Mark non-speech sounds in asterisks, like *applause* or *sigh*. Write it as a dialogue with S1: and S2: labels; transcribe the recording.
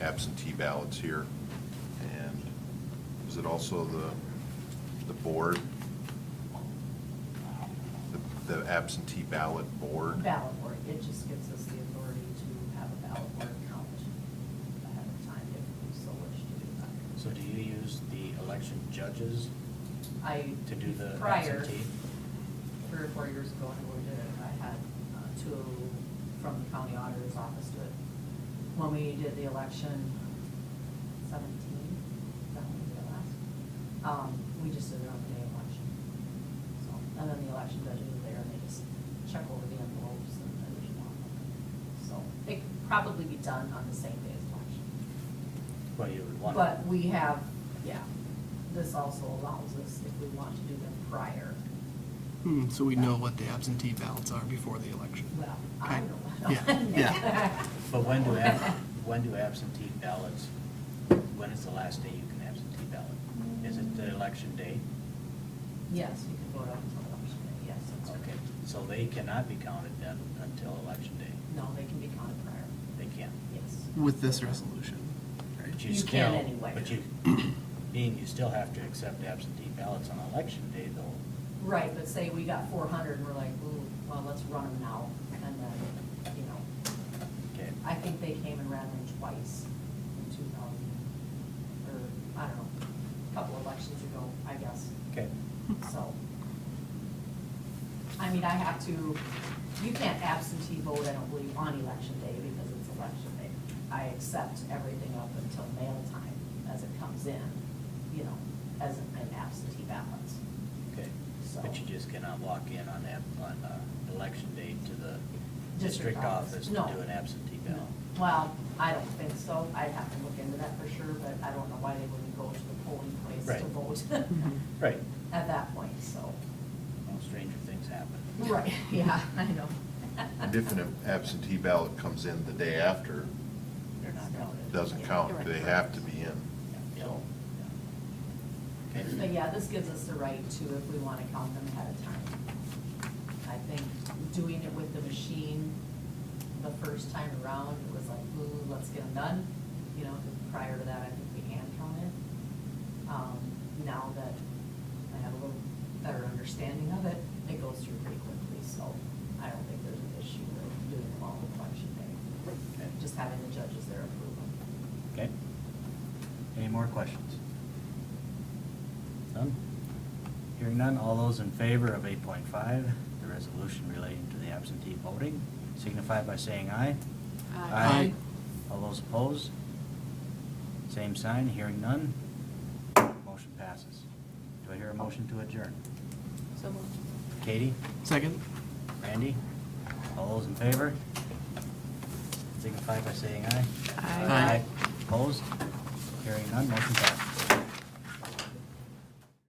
S1: absentee ballots here. And is it also the, the board? The- The absentee ballot board?
S2: Ballot board, it just gives us the authority to have a ballot board count ahead of time if we so wish to do that.
S3: So do you use the election judges
S2: I.
S3: to do the
S2: prior,
S3: absentee?
S2: Three or four years ago, when we did it, I had uh, two from the county auditor's office do it. When we did the election seventeen, that one we did last, um, we just did it on the day of election. So, and then the election judges are there, and they just check over the envelopes and everything on them. So, it could probably be done on the same day as election.
S3: Well, you would want.
S2: But we have, yeah, this also allows us if we want to do them prior.
S4: Hmm, So we know what the absentee ballots are before the election.
S2: Well, I
S4: Okay.
S2: *laughs* don't know.
S4: Yeah, yeah.
S3: But when
S2: *laughs*
S3: do, ab- when do absentee ballots, when is the last day you can absentee ballot? Is it the election day?
S2: Yes, you can vote up until election day, yes, that's
S3: Okay,
S2: okay.
S3: so they cannot be counted then until election day?
S2: No, they can be counted prior,
S3: They can.
S2: yes.
S4: With this resolution, right?
S3: But
S2: You can
S3: still-
S2: anyway.
S3: But you, *clears throat* being you still have to accept absentee ballots on election day though.
S2: Right, but say we got four hundred and we're like, ooh, well, let's run them now, and then, you know,
S3: Okay,
S2: I think they came and ran them twice in two thousand, or, I don't know, a couple elections ago, I guess.
S3: okay.
S2: So, I mean, I have to, you can't absentee vote, I don't believe, on election day because it's election day. I accept everything up until mail time as it comes in, you know, as an absentee ballot.
S3: Okay, but you just cannot walk in on that, on, uh, election day to the district office to do
S2: No.
S3: an absentee ballot?
S2: Well, I don't think so. I'd have to look into that for sure, but I don't know why they wouldn't go to the polling place
S3: Right.
S2: to *laughs* vote Mhm.
S3: Right,
S2: at that point, so.
S3: well, stranger things happen.
S2: Right, *laughs* yeah, I know.
S1: And if an absentee ballot comes in the day after,
S2: They're not counted.
S1: it doesn't count, they have to be in.
S3: Yeah.
S2: So-
S3: yeah.
S2: But
S3: Okay,
S2: yeah, this gives us the right to, if we want to count them ahead of time. I think doing it with the machine the first time around, it was like, ooh, let's get them done. You know, 'cause prior to that, I think we hand counted. Um, Now that I have a little better understanding of it, it goes through pretty quickly, so I don't think there's an issue with doing them all on election day.
S3: Okay.
S2: Just having the judges there approve them.
S3: okay. Any more questions? None? Hearing none, all those in favor of eight point five, the resolution relating to the absentee voting, signify by saying aye.
S4: Aye.
S3: All those opposed? Same sign, hearing none, motion passes. Do I hear a motion to adjourn?
S5: So moved.
S3: Katie?
S4: Second?
S3: Randy? All those in favor? Signify by saying aye.
S5: Aye.
S4: Aye.
S3: Opposed? Hearing none, motion passed.